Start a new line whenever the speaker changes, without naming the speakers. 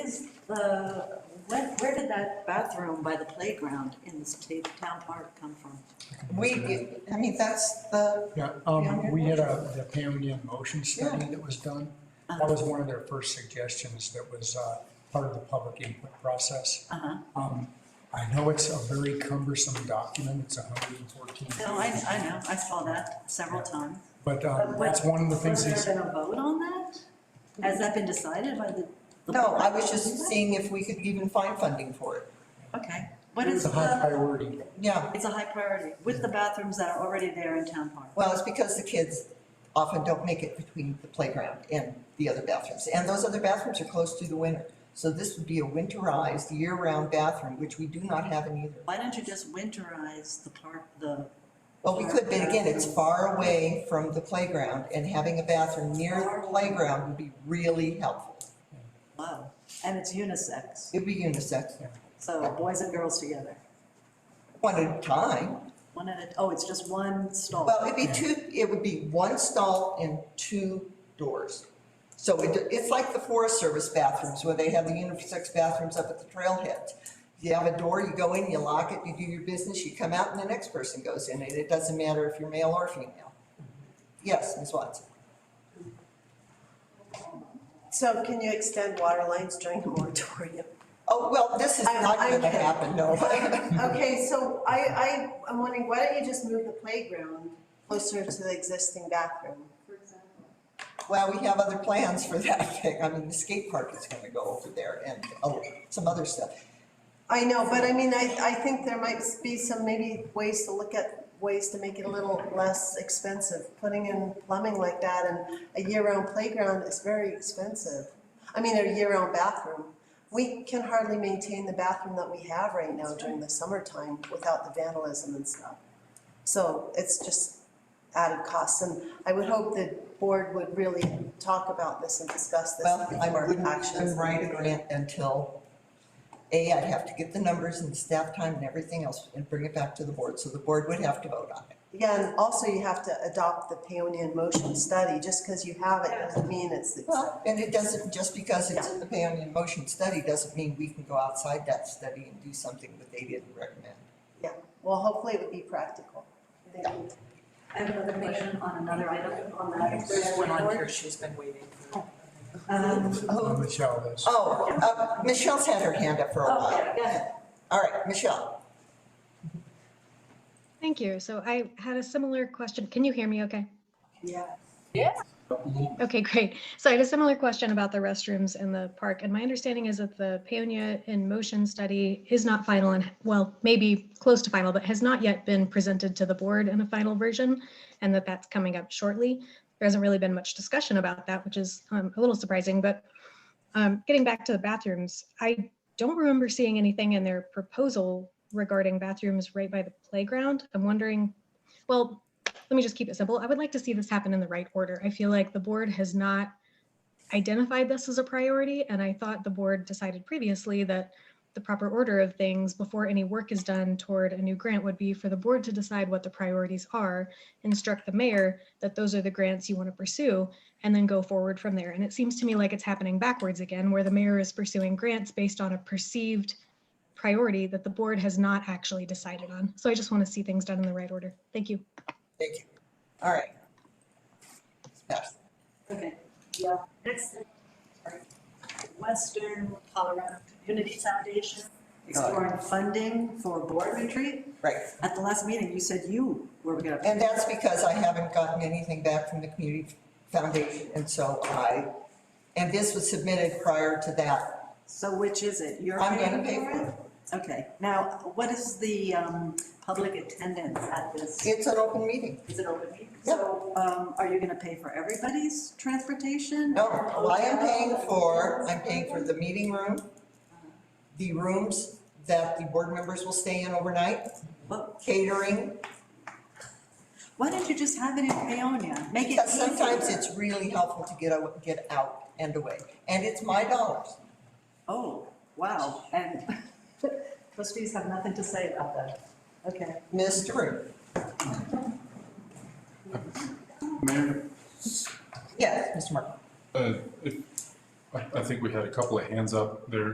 the, when, where did that bathroom by the playground in the state town park come from?
We, I mean, that's the,
Yeah, um,
Pioneer
we had a, the Pioneer Motion Study
Yeah.
that was done.
Uh-huh.
That was one of their first suggestions that was, uh, part of the public input process.
Uh-huh.
Um, I know it's a very cumbersome document, it's hundred and fourteen
No, Oh, I,
pages.
I know, I saw that several times.
But, um, that's one of the things
Has
that's,
there been a vote on that? Has that been decided by the? the
no,
board?
I was just seeing if we could even find funding for it.
Okay, what is
it's a high
the,
priority. uh,
Yeah,
it's a high priority with the bathrooms that are already there in town park.
well, it's because the kids often don't make it between the playground and the other bathrooms. And those other bathrooms are closed through the winter. So this would be a winterized, year-round bathroom, which we do not have in either.
Why don't you just winterize the park, the,
Well, we could, but again, it's far away from the playground, and having a bathroom near the playground would be really helpful.
wow, and it's unisex,
It'd be unisex,
so boys and girls together.
one at a time.
One at a, oh, it's just one stall.
Well, it'd be two, it would be one stall and two doors. So it, it's like the Forest Service bathrooms, where they have the unisex bathrooms up at the trailhead. You have a door, you go in, you lock it, you do your business, you come out, and the next person goes in, and it doesn't matter if you're male or female. Yes, Ms. Watson?
So can you extend water lines during the moratorium?
Oh, well, this is
I'm-
not
I'm
gonna
kidding.
happen, no.
Okay, so I, I, I'm wondering, why don't you just move the playground closer to the existing bathroom?
Well, we have other plans for that thing. I mean, the skate park is gonna go over there and, oh, some other stuff.
I know, but I mean, I, I think there might be some maybe ways to look at ways to make it a little less expensive. Putting in plumbing like that and a year-round playground is very expensive. I mean, a year-round bathroom. We can hardly maintain the bathroom that we have right now during the summertime without the vandalism and stuff. So it's just added costs, and I would hope the board would really talk about this and discuss this
Well, I
before
wouldn't
actions.
even write a grant until, A, I'd have to get the numbers and staff time and everything else and bring it back to the board, so the board would have to vote on it.
Yeah, and also you have to adopt the Paonian motion study, just because you have it doesn't mean it's, it's-
Well, and it doesn't, just because it's in the Pan in Motion study doesn't mean we can go outside that study and do something that they didn't recommend.
yeah, well, hopefully it would be practical. Thank you.
I have another question on another item on that.
There's one on here, she's been waiting.
Um,
Uh, Michelle is.
Oh, uh, Michelle's had her hand up for a
okay,
while.
go ahead.
All right, Michelle.
Thank you. So I had a similar question. Can you hear me okay?
Yeah.
Okay, great. So I had a similar question about the restrooms in the park. And my understanding is that the Paonia in Motion study is not final and, well, maybe close to final, but has not yet been presented to the board in a final version, and that that's coming up shortly. There hasn't really been much discussion about that, which is um, a little surprising, but um, getting back to the bathrooms, I don't remember seeing anything in their proposal regarding bathrooms right by the playground. I'm wondering, well, let me just keep it simple. I would like to see this happen in the right order. I feel like the board has not identified this as a priority, and I thought the board decided previously that the proper order of things before any work is done toward a new grant would be for the board to decide what the priorities are, instruct the mayor that those are the grants you want to pursue, and then go forward from there. And it seems to me like it's happening backwards again, where the mayor is pursuing grants based on a perceived priority that the board has not actually decided on. So I just want to see things done in the right order. Thank you.
Thank you. All right. Yes.
Okay, yeah, next, Western Colorado Community Foundation exploring funding for board retreat.
Right.
At the last meeting, you said you were gonna.
And that's because I haven't gotten anything back from the community foundation, and so I, and this was submitted prior to that.
So which is it? You're
I'm gonna
paying
pay for
it? Okay, now, what is the, um, public attendance at this?
It's an open meeting.
Is it open meeting?
Yeah.
So, um, are you gonna pay for everybody's transportation?
No, well, I am paying for, I'm paying for the meeting room, the rooms that the board members will stay in overnight,
Well,
catering,
Why don't you just have it in Paonia? Make it
because sometimes
easier.
it's really helpful to get, aw- get out and away. And it's my dollars.
Oh, wow, and trustees have nothing to say about that. Okay.
Mr. Root?
Mayor,
Yes, Mr. Mark?
uh, if- I I think we had a couple of hands up there.